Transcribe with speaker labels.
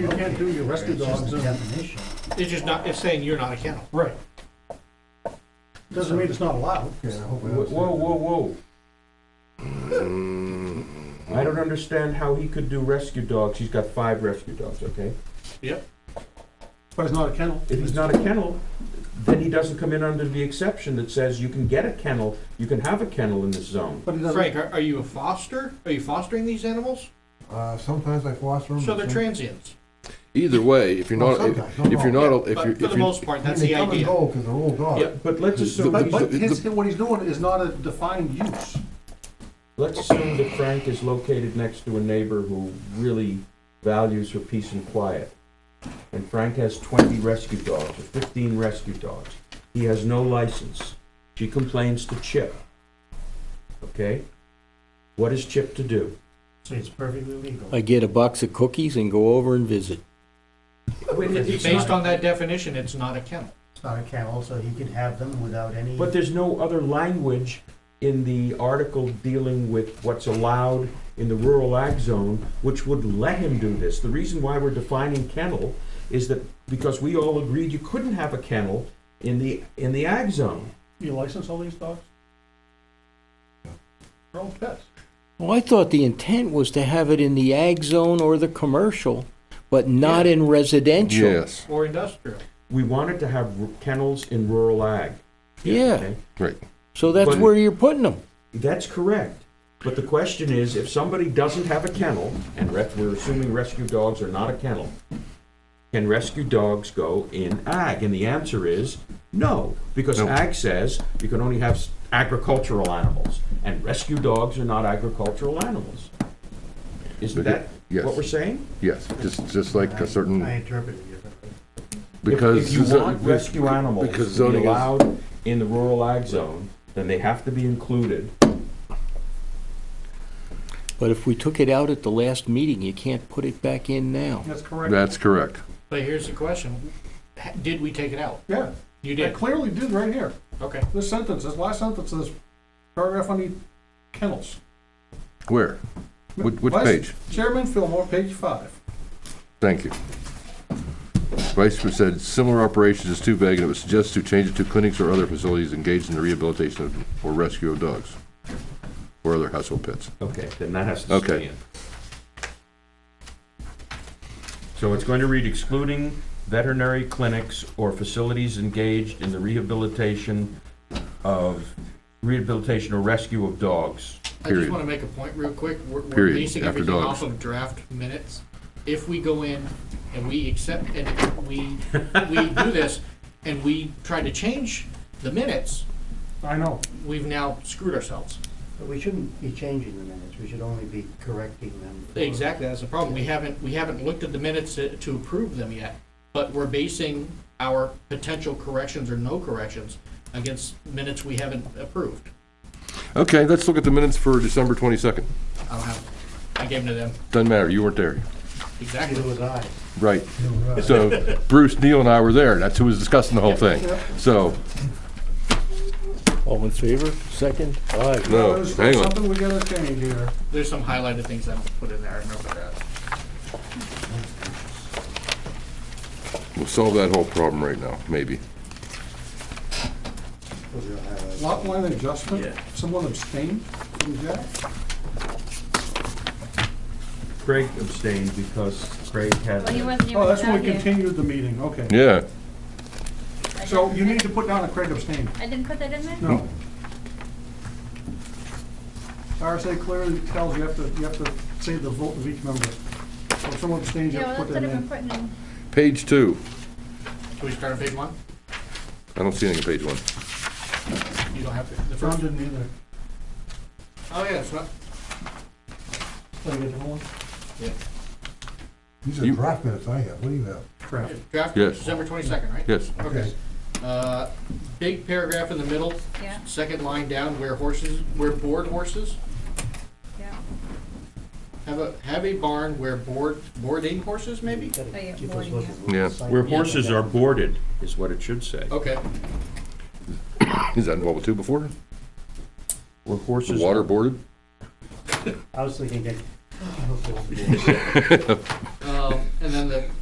Speaker 1: you can't do your rescue dogs
Speaker 2: It's just a
Speaker 1: in,
Speaker 2: definition.
Speaker 3: It's just not, it's saying you're not a kennel.
Speaker 1: right. Doesn't mean it's not allowed.
Speaker 4: Whoa, whoa, whoa. I don't understand how he could do rescue dogs. He's got five rescue dogs, okay?
Speaker 3: Yep.
Speaker 1: But it's not a kennel.
Speaker 4: If he's not a kennel, then he doesn't come in under the exception that says you can get a kennel, you can have a kennel in this zone.
Speaker 1: But it doesn't,
Speaker 3: Frank, are, are you a foster? Are you fostering these animals?
Speaker 5: Uh, sometimes I foster them.
Speaker 3: So they're transients.
Speaker 6: Either way, if you're
Speaker 5: Well,
Speaker 6: not, if
Speaker 5: sometimes,
Speaker 6: if you're
Speaker 5: not
Speaker 6: not, a- if
Speaker 3: But
Speaker 6: you're,
Speaker 3: for the
Speaker 6: if you're,
Speaker 3: most part, that's
Speaker 5: They
Speaker 3: the
Speaker 5: come and
Speaker 3: idea.
Speaker 5: go because they're old
Speaker 4: Yeah,
Speaker 5: dogs.
Speaker 4: but let's assume,
Speaker 1: but, but
Speaker 4: he's-
Speaker 1: his, what he's doing is not a defined use.
Speaker 4: let's assume that Frank is located next to a neighbor who really values her peace and quiet. And Frank has twenty rescue dogs, or fifteen rescue dogs. He has no license. She complains to Chip. Okay? What is Chip to do?
Speaker 2: So it's perfectly legal.
Speaker 7: I get a box of cookies and go over and visit.
Speaker 3: Based on that definition, it's not a kennel.
Speaker 2: It's not a kennel, so he can have them without any.
Speaker 4: But there's no other language in the article dealing with what's allowed in the rural ag zone which would let him do this. The reason why we're defining kennel is that because we all agreed you couldn't have a kennel in the, in the ag zone.
Speaker 1: You license all these dogs? They're all pets.
Speaker 7: Well, I thought the intent was to have it in the ag zone or the commercial, but not in residential.
Speaker 6: yes,
Speaker 3: Or industrial.
Speaker 4: We wanted to have kennels in rural ag.
Speaker 7: Yeah,
Speaker 4: okay?
Speaker 6: right.
Speaker 7: so that's
Speaker 4: But-
Speaker 7: where you're putting them.
Speaker 4: That's correct. But the question is, if somebody doesn't have a kennel, and res- we're assuming rescue dogs are not a kennel, can rescue dogs go in ag? And the answer is no, because
Speaker 6: No.
Speaker 4: ag says you can only have s- agricultural animals, and rescue dogs are not agricultural animals. Isn't
Speaker 6: But
Speaker 4: that
Speaker 6: it- yes.
Speaker 4: what we're saying?
Speaker 6: Yes, just, just like a
Speaker 2: I
Speaker 6: certain,
Speaker 2: interpret it differently.
Speaker 4: If-
Speaker 6: because.
Speaker 4: If you
Speaker 6: zo-
Speaker 4: want rescue animals
Speaker 6: Because
Speaker 4: to be
Speaker 6: zoning is,
Speaker 4: allowed in the rural ag zone, then they have to be included.
Speaker 7: But if we took it out at the last meeting, you can't put it back in now.
Speaker 1: That's correct.
Speaker 6: that's correct.
Speaker 3: But here's the question. Ha- Did we take it out?
Speaker 1: Yeah,
Speaker 3: You
Speaker 1: I
Speaker 3: did.
Speaker 1: clearly did right here.
Speaker 3: Okay.
Speaker 1: This sentence, this last sentence, this paragraph on the kennels.
Speaker 6: Where? Which, which
Speaker 1: Vice-
Speaker 6: page?
Speaker 1: Chairman Fillmore, page five.
Speaker 6: Thank you. Vice Chair said, similar operations is too vague, and it was suggested to change it to clinics or other facilities engaged in the rehabilitation of- or rescue of dogs or other household pets.
Speaker 4: Okay, then that has to
Speaker 6: Okay.
Speaker 4: stay in. So it's going to read excluding veterinary clinics or facilities engaged in the rehabilitation of, rehabilitation or rescue of dogs.
Speaker 3: I just
Speaker 6: Period.
Speaker 3: want to make a point real quick. We're, we're
Speaker 6: Period,
Speaker 3: basing
Speaker 6: after
Speaker 3: everything off
Speaker 6: dogs.
Speaker 3: of draft minutes. If we go in and we accept, and we, we do this, and we try to change the minutes,
Speaker 1: I know.
Speaker 3: we've now screwed ourselves.
Speaker 2: But we shouldn't be changing the minutes, we should only be correcting them. for-
Speaker 3: Exactly, that's the problem. We haven't, we haven't looked at the minutes to to approve them yet, but we're basing our potential corrections or no corrections against minutes we haven't approved.
Speaker 6: Okay, let's look at the minutes for December twenty-second.
Speaker 3: I don't have, I gave them to them,
Speaker 6: Doesn't matter, you weren't there.
Speaker 3: exactly.
Speaker 2: Neither was I.
Speaker 6: Right. So Bruce, Neil, and I were there. That's who was discussing the whole thing. So,
Speaker 7: All in favor? Second? Aye.
Speaker 6: no,
Speaker 1: There's
Speaker 6: Oh, hang on.
Speaker 1: Something we gotta change here.
Speaker 3: There's some highlighted things I put in there, I remember that.
Speaker 6: We'll solve that whole problem right now, maybe.
Speaker 2: Those are highlights.
Speaker 1: Lot line adjustment, someone abstained from Jack?
Speaker 4: Craig abstained because Craig had.
Speaker 8: Well, he wasn't even
Speaker 1: Oh, that's when
Speaker 8: down
Speaker 1: we
Speaker 8: here.
Speaker 1: continued the meeting, okay.
Speaker 6: Yeah,
Speaker 8: I
Speaker 1: So
Speaker 8: didn't
Speaker 1: you
Speaker 8: put-
Speaker 1: need to put down a Craig abstained.
Speaker 8: I didn't put that in there?
Speaker 1: No. RSA clearly tells you have to, you have to say the vote of each member. So if someone abstains, you
Speaker 8: Yeah,
Speaker 1: have to
Speaker 8: well,
Speaker 1: put
Speaker 8: that's
Speaker 1: their
Speaker 8: what I've been
Speaker 1: name.
Speaker 8: putting in.
Speaker 6: page two.
Speaker 3: Can we start on page one?
Speaker 6: I don't see anything on page one.
Speaker 3: You don't have to, the
Speaker 1: John
Speaker 3: first,
Speaker 1: didn't either.
Speaker 3: oh yeah, it's not,
Speaker 1: Did I get the whole one?
Speaker 3: yeah.
Speaker 5: These are
Speaker 6: You-
Speaker 5: draft minutes I have, what do you have?
Speaker 1: Crap.
Speaker 3: Draft,
Speaker 6: Yes.
Speaker 3: December twenty-second, right?
Speaker 6: Yes.
Speaker 3: Okay. Uh, Big paragraph in the middle,
Speaker 8: Yeah,
Speaker 3: second line down, where horses, where board horses,
Speaker 8: yeah.
Speaker 3: have a, have a barn where board, boarding horses maybe?
Speaker 8: Oh, yeah,
Speaker 2: Keep us
Speaker 8: boarding,
Speaker 2: looking.
Speaker 8: yeah.
Speaker 6: Yeah.
Speaker 4: Where horses are boarded is what it should say.
Speaker 6: Oh.
Speaker 3: Okay,
Speaker 6: Is that involved with two before?
Speaker 4: Where horses.
Speaker 6: Water boarded?
Speaker 2: I was thinking, that-
Speaker 3: um, and then the